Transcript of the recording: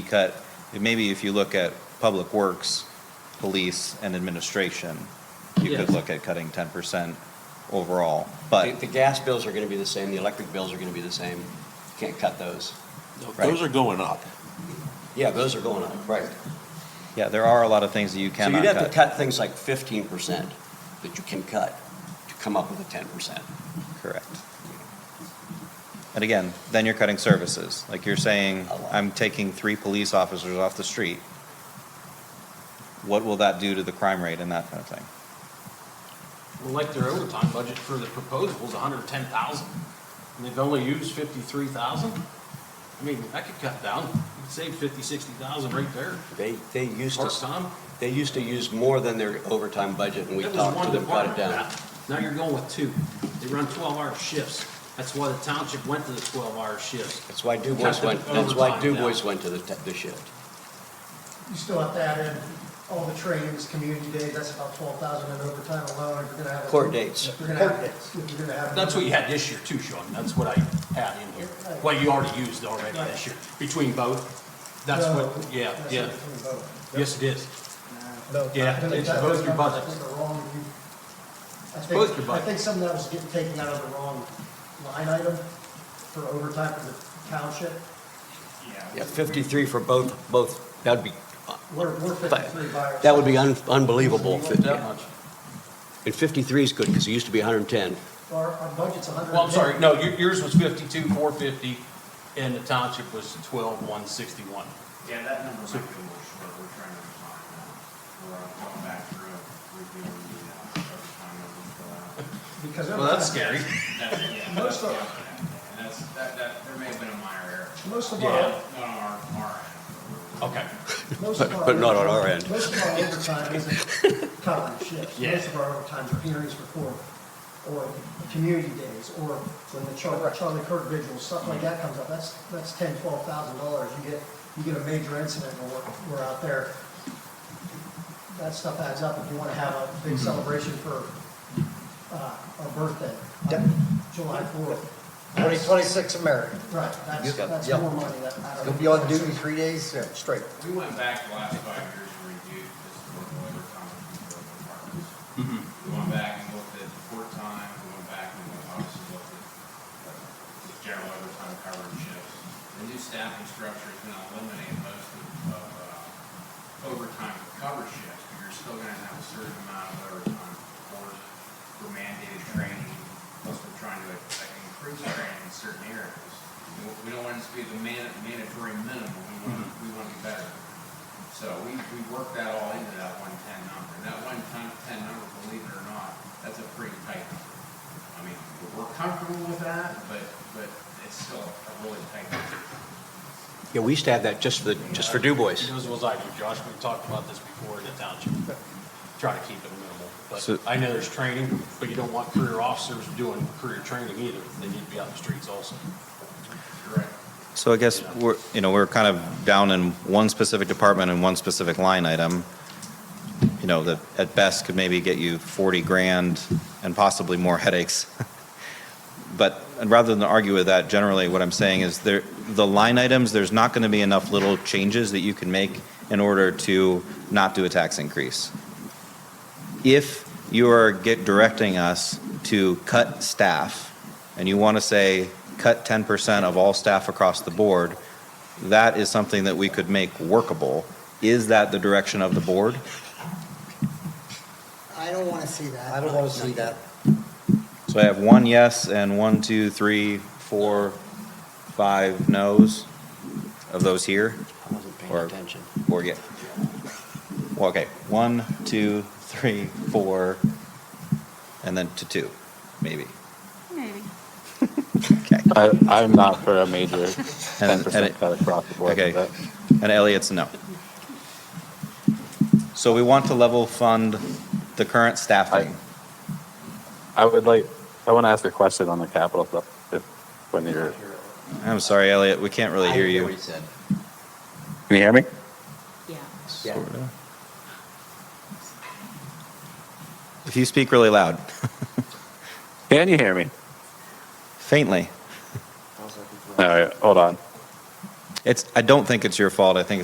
cut, maybe if you look at public works, police, and administration, you could Yes. look at cutting ten percent overall, but. The the gas bills are going to be the same, the electric bills are going to be the same. Can't cut those. Those are going up. Yeah, those are going up, right. Yeah, there are a lot of things that you So cannot you'd have to cut. cut things like fifteen percent that you can cut to come up with a ten percent. Correct. And again, then you're cutting services. Like you're saying, A lot. I'm taking three police officers off the street. What will that do to the crime rate and that kind of thing? Well, like their overtime budget for the proposal is hundred and ten thousand, and they've only used fifty-three thousand? I mean, that could cut down, you could save fifty, sixty thousand right there, They, they used to, part-time. they used to use more than their overtime budget and we That was talked one to them, cut it department. down. Now you're going with two, they run twelve-hour shifts, that's why the township went to the twelve-hour shifts. That's why Du Bois Cut the went, that's why Du overtime down. Bois went to the, te- the shift. You still have to add in all the trainings, community days, that's about twelve thousand in overtime alone, if you're gonna have. a- Court dates. If you're gonna have, if you're gonna have. That's what you had this year too, Sean, that's what I had in here, well, you already used already this year, between both, that's No, what, yeah, that's yeah, between both. yes it is. No. Yeah, I think it's that- both your I think budgets. they're wrong. You- I think- both your I think some of that was getting taken out of the wrong line item for overtime for the township. Yeah, fifty-three for both, both, that'd be, We're, we're fifty-three by ourselves. that would be un- unbelievable. So you want that And fifty-three is good because it used to be hundred and ten. Our, our budget's a hundred. Well, I'm sorry, no, your- yours was fifty-two, four fifty, and the township was twelve, one sixty-one. Yeah, that number might be a little short, we're trying to refine that. We're uh, going back through, reviewing the, uh, every time that we fill out. Because. Well, that's scary. overtime- That's, uh, yeah, Most that's, of- yeah, and that's, that, that, there may have been a minor error. Most of Yeah. our, Not on our, our end. Okay. Most But- of our but not on our overtime- end. Most of our overtime isn't covering shifts. Yeah. Most of our overtime are hearings before, or community days, or when the Charlie, Charlie Kirk vigil, stuff like that comes up. That's, that's ten, twelve thousand dollars. You get, you get a major incident and we're, we're out there. That stuff adds up. If you wanna have a big celebration for, uh, a birthday, Yep. on July fourth. 2026 American. Right, that's, Yep. that's Yep. more money that. I don't- You'll be on duty three days uh, straight. We went back the last five years and reviewed just the local overtime and the local departments. We went back and looked at court time, we went back and we obviously looked at uh, just general overtime coverage shifts. The new staffing structure is going to eliminate most of of, uh, overtime coverage shifts, but you're still going to have a certain amount of overtime for for mandated training, plus we're trying to uh, increase training in certain areas. We- We don't want it to be the man- mandatory minimum, we want, we want to be better. So we, we worked that all into that one-ten number, and that one-ten, ten number, believe it or not, that's a pretty tight number. I mean, we're comfortable with that, but, but it's still a really tight number. Yeah, we used to have that just for, the- just for Du Bois. It was, was I do, Josh, we talked about this before in the township, try to keep it minimal. So- But I know there's training, but you don't want career officers doing career training either, they need to be out in the streets also. Correct. So I guess we're, you know, we're kind of down in one specific department and one specific line item, you know, that at best could maybe get you 40 grand and possibly more headaches. But, and rather than argue with that, generally what I'm saying is there, the line items, there's not going to be enough little changes that you can make in order to not do a tax increase. If you are get directing us to cut staff, and you want to say, cut 10% of all staff across the board, that is something that we could make workable. Is that the direction of the board? I don't want to see that. I don't wanna see that. So I have one yes and one, two, three, four, five no's of those here, I wasn't paying Or- attention. or yeah. Well, okay, one, two, three, four, and then to two, maybe. Maybe. Okay. I, I'm not for a major ten and it- percent cut across the board. Okay, but- and Elliot's a no. So we want to level fund the current staffing. I would like, I want to ask a question on the capital stuff, if, when you're, can I'm sorry, Elliot, we can't really hear I didn't what you. he said. you hear me? Yeah. Yeah. Sorta. If you speak really loud, Can you hear me? faintly, All right, hold on. it's, I don't think it's your fault, I think